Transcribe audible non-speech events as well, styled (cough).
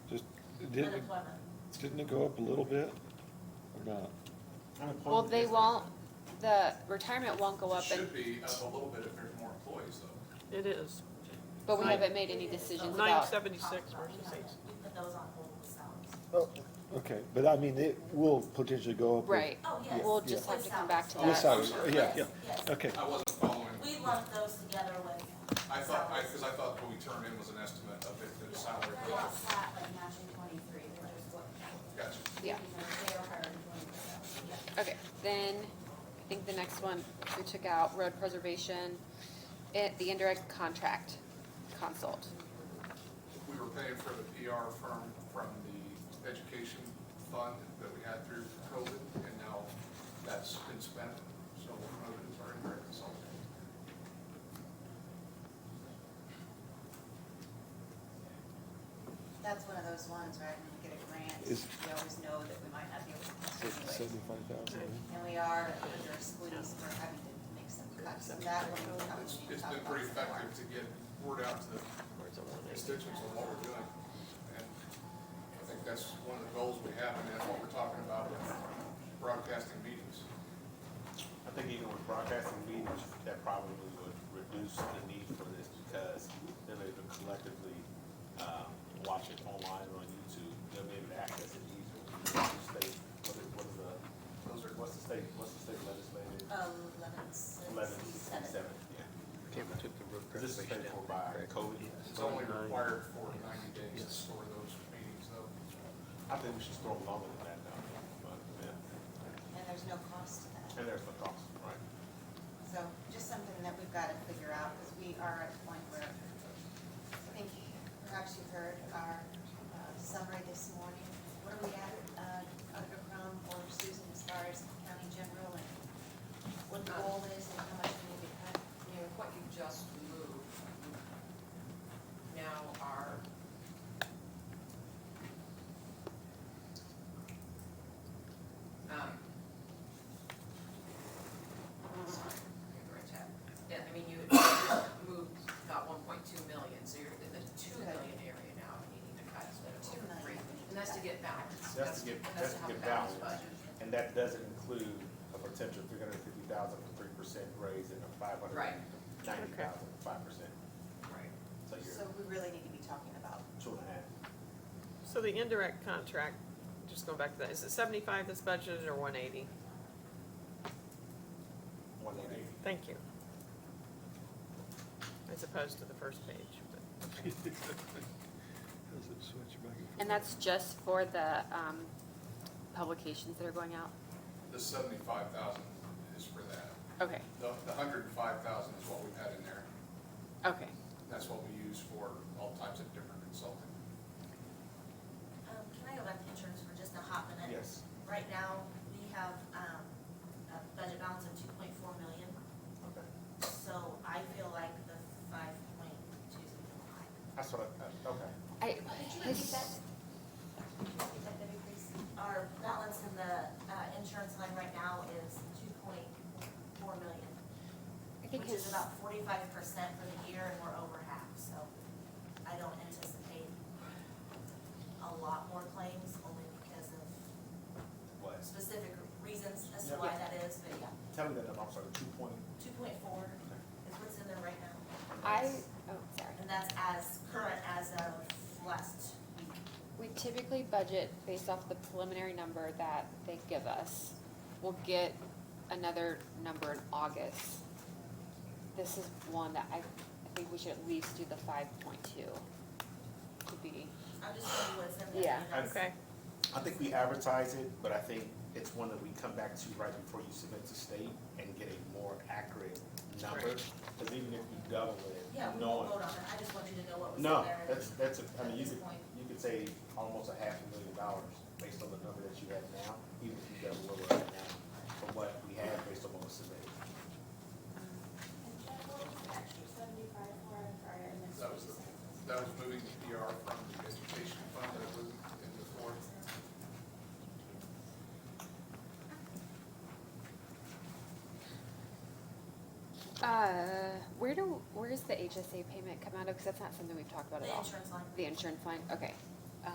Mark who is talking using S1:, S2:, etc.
S1: Didn't, it-
S2: Unemployment.
S1: didn't it go up a little bit or not?
S3: Well,
S4: Unemployment
S3: they
S4: is-
S3: won't, the retirement won't go up, and-
S5: Should be up a little bit if there's more employees though.
S6: It is.
S3: but we haven't made any decisions
S6: Nine
S3: about,
S6: seventy-six
S2: We
S6: versus eight.
S2: haven't- We put those on hold with salaries.
S1: Oh, okay, but I mean, it will potentially go up. with-
S3: right.
S2: Oh, yes.
S3: We'll just
S2: With
S3: have to come back to
S1: With
S3: that.
S1: salaries, yeah, yeah,
S2: Yes, yes.
S1: okay.
S5: I wasn't following,
S2: We lumped those together with.
S5: I thought, I,
S2: salaries.
S5: cause I thought what we turned in was an estimate of it, the salary.
S2: They're all flat, like matching twenty-three, which is what.
S5: Gotcha.
S3: Yeah.
S2: They are higher than twenty-three, yeah.
S3: Okay, then, I think the next one, we took out road preservation, it, the indirect contract consult.
S5: We were paying for the PR firm from the education fund that we had through COVID and now that's been spent. So uh, we're moving to our indirect consulting.
S7: That's one of those ones, right, when we get a grant,
S1: Is-
S7: we always know that we might not be able to do it.
S1: Seventy-five thousand. (laughs)
S7: And we are under a squeeze, we're having to make some cuts, and that one will probably
S5: It's,
S7: need to
S5: it's
S7: talk
S5: been
S7: about
S5: pretty
S7: some more.
S5: effective to get word out to the constituents on what we're doing. And I think that's one of the goals we have and that's what we're talking about with broadcasting meetings.
S4: I think even with broadcasting meetings, that probably would reduce the need for this because they'll be able to collectively, um, watch it online or on YouTube. They'll be able to access it easier. What's the state, what is, what is the, those are, what's the state, what's the state legislative?
S2: Eleven, six,
S4: Eleven,
S2: seven.
S4: seven, yeah. This is paid for by COVID.
S5: It's only required for ninety days to store those meetings though.
S4: I think we should store them longer than that now, but, yeah,
S7: And there's no cost to that,
S4: and there's the cost, right?
S7: so just something that we've gotta figure out, because we are at a point where, I think perhaps you heard our uh, summary this morning. Where are we at, uh, Auditor Crum or Susan, as far as county general and what the goal is and how much we need to cut?
S8: you know, what you just moved, you now are um, sorry, I got the right tab. Yeah, I mean, you you moved about one point two million, so you're in the two million area now, and needing to cut instead of
S7: Two
S8: over
S7: million.
S8: three. And that's to get balance.
S4: That's to get, that's to
S8: have a
S4: get
S8: balanced
S4: balance,
S8: budget.
S4: and that doesn't include a potential three hundred fifty thousand for three percent raise and a five hundred
S8: Right.
S4: ninety thousand for five percent.
S8: Right.
S4: So
S7: So
S4: you're
S7: we really need to be talking about
S4: two and a half.
S6: So the indirect contract, just going back to that, is it seventy-five that's budgeted or one eighty?
S4: One eighty.
S6: Thank you. As opposed to the first page, but,
S1: Does it switch back
S3: And that's just for the, um, publications that are going out?
S5: The seventy-five thousand is for that.
S3: Okay,
S5: The, the hundred and five thousand is what we've had in there.
S3: okay.
S5: That's what we use for all types of different consulting.
S2: Um, can I go back to insurance for just a hot minute?
S4: Yes.
S2: Right now, we have, um, a budget balance of two point four million,
S4: Okay.
S2: so I feel like the five point two is a little high.
S4: That's what I, uh, okay.
S3: I,
S2: Could you repeat that? Could you repeat that, Debbie, please? Our balance in the, uh, insurance line right now is two point four million,
S3: I think
S2: which is
S3: his,
S2: about forty-five percent for the year, and we're over half, so I don't anticipate a lot more claims, only because of
S4: What?
S2: specific reasons as to
S4: Yeah.
S2: why that is, but yeah,
S4: Tell me that, number, I'm sorry, two point,
S2: two point four is what's in there right now.
S3: I, oh, sorry.
S2: And that's as current as of last week.
S3: We typically budget based off the preliminary number that they give us. We'll get another number in August. This is one that I, I think we should at least do the five point two to be,
S2: I'm just showing you what's in there.
S3: Yeah.
S2: you guys.
S6: okay.
S4: I think we advertise it, but I think it's one that we come back to right before you submit to state and get a more accurate number. Cause even if you double
S2: Yeah,
S4: it,
S2: we won't
S4: knowing
S2: vote on it, I just want you to know what was in
S4: No,
S2: there.
S4: that's, that's, a- I
S2: at
S4: mean, you
S2: this
S4: could,
S2: point.
S4: you could say almost a half a million dollars based on the number that you have now, even if you got a little right now, from what we have based on what was submitted.
S9: And Jeff, what was the extra seventy-five for, I'm sorry, I missed
S5: That
S9: what
S5: was
S9: you
S5: the-
S9: said.
S5: That was moving the PR from the education fund that was in the fourth.
S3: uh, where do, where does the HSA payment come out of? Cause that's not something we've talked about
S2: The
S3: at all.
S2: insurance line.
S3: The insurance line, okay.